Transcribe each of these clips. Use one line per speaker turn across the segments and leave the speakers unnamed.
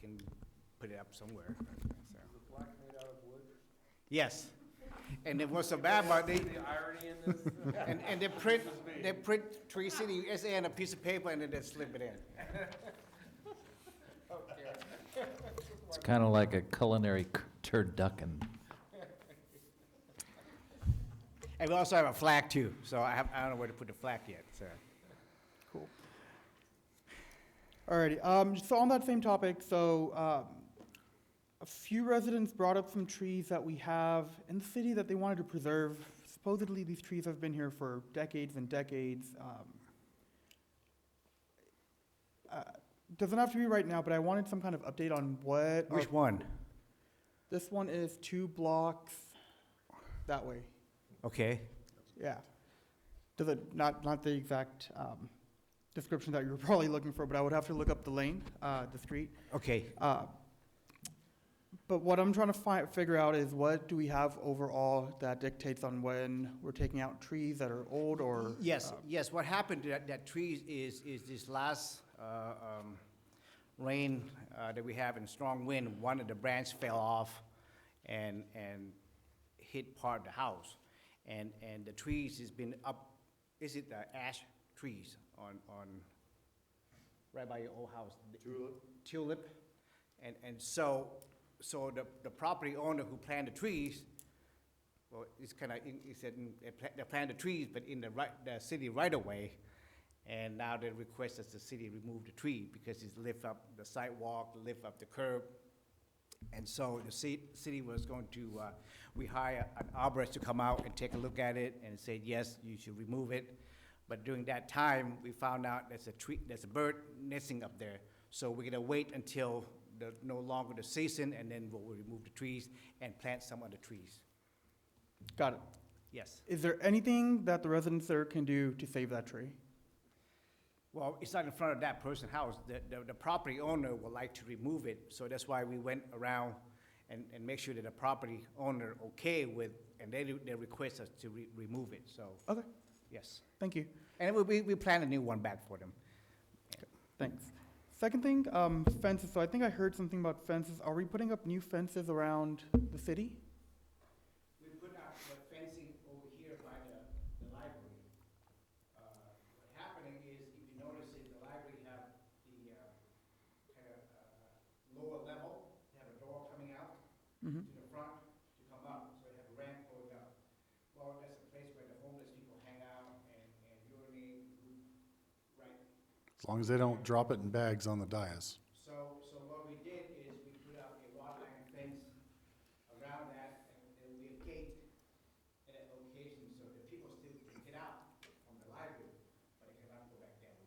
can put it up somewhere, so.
The plaque made out of wood.
Yes. And then what's so bad about
See
they,
the irony in this?
and, and they print, they print Tree City USA on a piece of paper and then they slip it in.
It's kind of like a culinary c- turducken.
And we also have a flag too, so I have, I don't know where to put the flag yet, so.
Cool. Alrighty. Um, so on that same topic, so um, a few residents brought up some trees that we have in the city that they wanted to preserve. Supposedly, these trees have been here for decades and decades. Um, uh, doesn't have to be right now, but I wanted some kind of update on what.
Which one?
This one is two blocks that way.
Okay.
Yeah. Does it, not, not the exact um, description that you were probably looking for, but I would have to look up the lane, uh, the street.
Okay.
Uh, But what I'm trying to fi- figure out is what do we have overall that dictates on when we're taking out trees that are old or?
Yes,
uh,
yes, what happened to that, that tree is, is this last, uh, um, rain, uh, that we have and strong wind, one of the branch fell off and, and hit part of the house. And, and the trees has been up, is it the ash trees on, on, right by your old house? Tulip. Tulip. And, and so, so the, the property owner who planted the trees, well, it's kind of, he said, mm, they pla- they planted the trees, but in the right, the city right of way. And now they request that the city remove the tree because it's lift up the sidewalk, lift up the curb. And so the ci- city was going to, uh, we hire an arborist to come out and take a look at it and said, yes, you should remove it. But during that time, we found out there's a tree, there's a bird nesting up there. So we're gonna wait until the, no longer the season and then we'll remove the trees and plant some other trees.
Got it.
Yes.
Is there anything that the residents there can do to save that tree?
Well, it's not in front of that person's house. The, the, the property owner would like to remove it, so that's why we went around and, and make sure that the property owner okay with, and they, they request us to re- remove it, so,
Okay,
yes.
thank you.
And we, we, we plan a new one back for them.
Thanks. Second thing, um, fences. So I think I heard something about fences. Are we putting up new fences around the city?
We put up the fencing over here by the, the library. Uh, What's happening is, if you notice it, the library have the, uh, kind of, uh, lower level, they have a door coming out to
Mhm.
the front to come up, so they have a ramp going up. Well, that's a place where the homeless people hang out and, and urinate, right?
As long as they don't drop it in bags on the dais.
So, so what we did is we put up a wrought iron fence around that, and and we have gate at that location, so that people still can get out from the library, but they cannot go back down.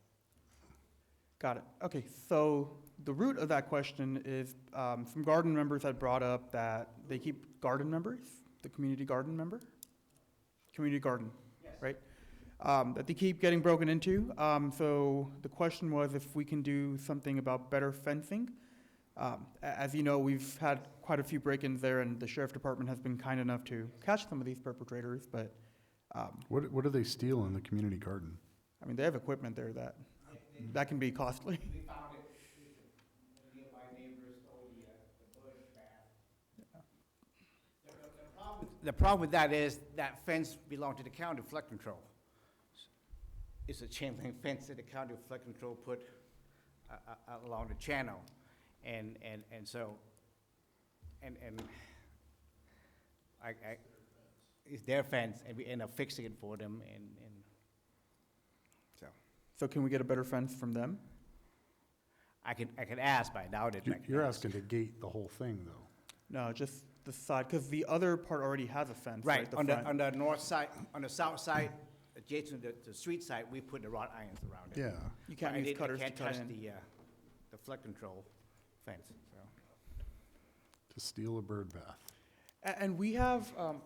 Got it. Okay, so the root of that question is um, some garden members had brought up that they keep garden members, the community garden member, community garden,
Yes.
right? Um, that they keep getting broken into. Um, so the question was if we can do something about better fencing. Um, a- as you know, we've had quite a few break-ins there, and the sheriff department has been kind enough to catch some of these perpetrators. But um,
What, what do they steal in the community garden?
I mean, they have equipment there that that can be costly.
We found it, the nearby neighbors stole the, uh, the bush bath. The- the- the problem- The problem with that is, that fence belonged to the county flood control. It's a chain link fence that the county flood control put uh, uh, along the channel. And, and, and so, and, and I, I, it's their fence, and we end up fixing it for them, and, and, so.
So can we get a better fence from them?
I can, I can ask, but I doubt it.
You- You're asking to gate the whole thing, though.
No, just the side, because the other part already has a fence.
Right,
the
on the,
front.
on the north side, on the south side, adjacent to the, the street side, we put the wrought irons around it.
Yeah.
You can't
But I
use
didn't- I
cutters to
can't
cut
touch
in.
the, uh, the flood control fence, so.
To steal a bird bath.
A- And we have, um,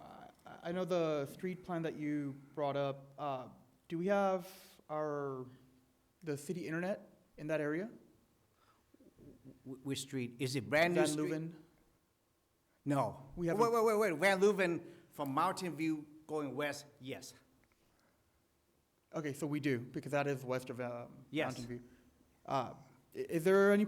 I I know the street plan that you brought up, uh, do we have our, the city internet in that area?
Wh- Which street, is it brand new
Van
street?
Leuven?
No. Wait,
We have a-
wait, wait, wait, Van Leuven from Mountain View going west, yes.
Okay, so we do, because that is west of um,
Yes.
Mountain View. Uh, i- Is there any